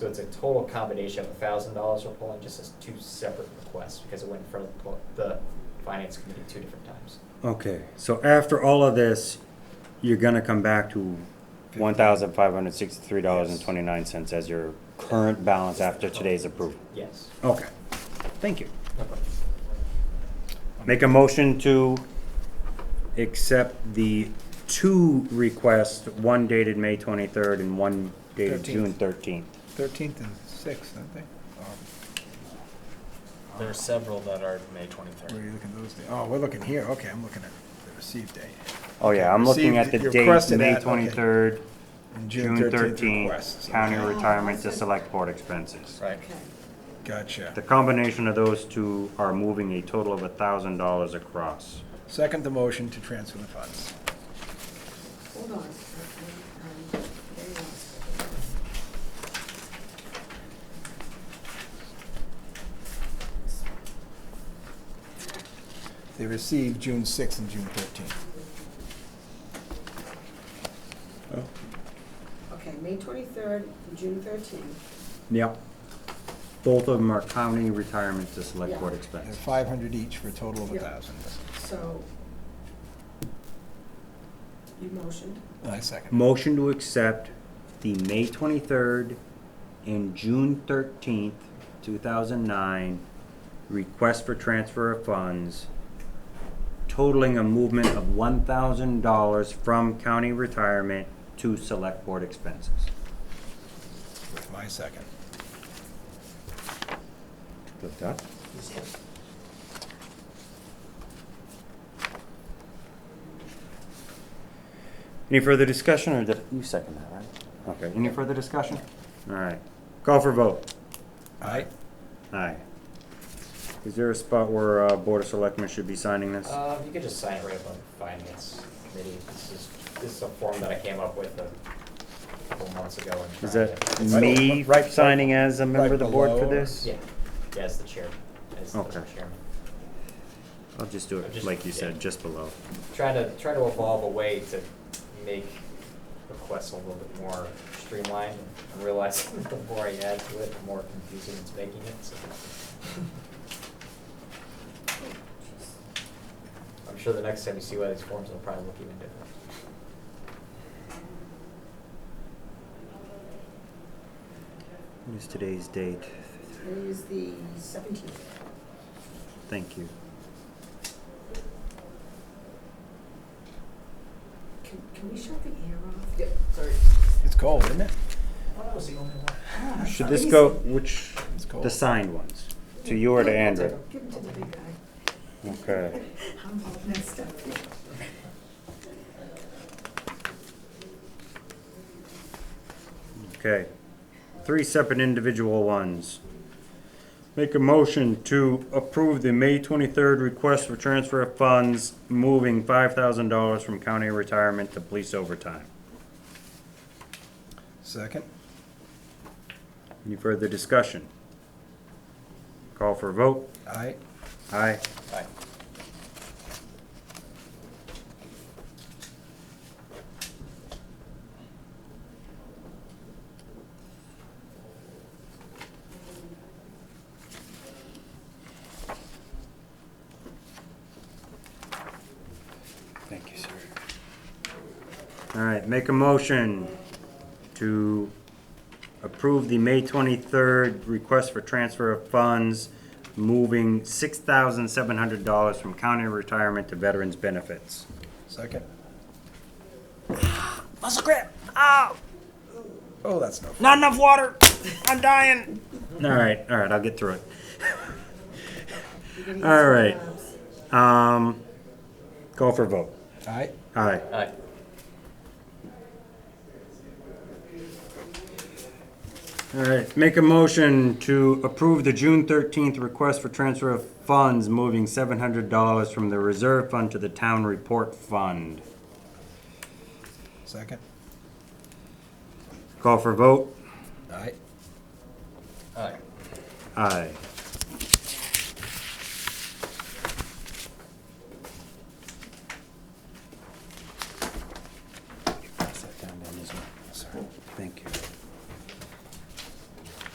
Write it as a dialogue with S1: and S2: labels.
S1: So it's a total combination of a thousand dollars we're pulling, just as two separate requests, because it went from pl- the finance committee two different times.
S2: Okay, so after all of this, you're gonna come back to one thousand five hundred sixty-three dollars and twenty-nine cents as your current balance after today's approval.
S1: Yes.
S2: Okay, thank you.
S1: No problem.
S2: Make a motion to accept the two requests, one dated May twenty-third and one dated
S3: 13th.
S2: June thirteenth.
S3: Thirteenth and sixth, aren't they? Um,
S4: There are several that are May
S3: Or were
S4: 23rd.
S3: you looking those days? Oh, we're looking here, okay, I'm looking at the received date.
S2: Oh yeah, I'm looking at the
S3: Received- you
S2: date,
S3: requested
S2: May
S3: that, okay.
S2: twenty-third,
S3: And
S2: June
S3: 13th
S2: thirteenth,
S3: requests.
S2: county
S3: Okay.
S2: retirement to select board expenses.
S4: Right.
S2: The
S3: Gotcha.
S2: combination of those two are moving a total of a thousand dollars across.
S3: Second the motion to transfer the funds.
S5: Hold on. Um, there you are.
S3: They received June sixth and June thirteenth.
S5: Okay, May twenty-third, June thirteenth,
S2: Yep. Both of them are county retirement to select board
S5: Yeah.
S3: They're
S2: expense.
S3: five hundred each for a total of a
S5: Yeah.
S3: thousand.
S5: so you motioned,
S3: I second.
S2: Motion to accept the May twenty-third and June thirteenth, two thousand nine, request for transfer of funds totaling a movement of one thousand dollars from county retirement to select board expenses.
S3: With my second.
S2: Good that? Any further discussion, or did? You second that, right? Okay, any further discussion? All right, call for vote.
S3: Aye.
S2: Aye. Is there a spot where, uh, Board of Selectmen should be signing this?
S1: Uh, you could just sign it right up on finance committee. This is, this is a form that I came up with a couple months ago. and
S2: Is
S1: tried
S2: that
S1: to-
S3: Right-
S2: me
S3: right-
S2: signing as a member of the board for
S3: below or-
S2: this?
S1: Yeah, yeah, as the chair, as the
S2: Okay.
S1: chairman.
S2: I'll just do it
S1: Just-
S2: like you
S1: yeah.
S2: said, just below.
S1: Trying to, trying to evolve a way to make requests a little bit more streamlined. and realizing the more I add to it, the more confusing it's making it, so. I'm sure the next time you see one of these forms, it'll probably look even different.
S2: What is today's date?
S5: it is the seventeenth.
S2: Thank you.
S5: Can, can we shut the air off? Yep, sorry.
S3: It's cold, isn't it?
S2: Should this go, which,
S3: It's cold.
S2: the signed ones, to you or to Andrew?
S5: Give it to the big guy.
S2: Okay.
S5: I'm all messed up.
S2: Okay, three separate individual ones. Make a motion to approve the May twenty-third request for transfer of funds, moving five thousand dollars from county retirement to police overtime.
S3: Second.
S2: Any further discussion? Call for a vote?
S3: Aye.
S2: Aye.
S1: Aye.
S2: Thank you, sir. All right, make a motion to approve the May twenty-third request for transfer of funds, moving six thousand seven hundred dollars from county retirement to veterans benefits.
S3: Second.
S2: Muscle grip, ah,
S3: Oh, that's no. fun.
S2: not enough water, I'm dying. All right, all right, I'll get through it.
S5: You're gonna use
S2: All
S5: your
S2: right.
S5: arms.
S2: Um, call for vote.
S3: Aye.
S2: Aye.
S1: Aye.
S2: All right, make a motion to approve the June thirteenth request for transfer of funds, moving seven hundred dollars from the reserve fund to the town report fund.
S3: Second.
S2: Call for vote?
S3: Aye.
S1: Aye.
S2: Aye.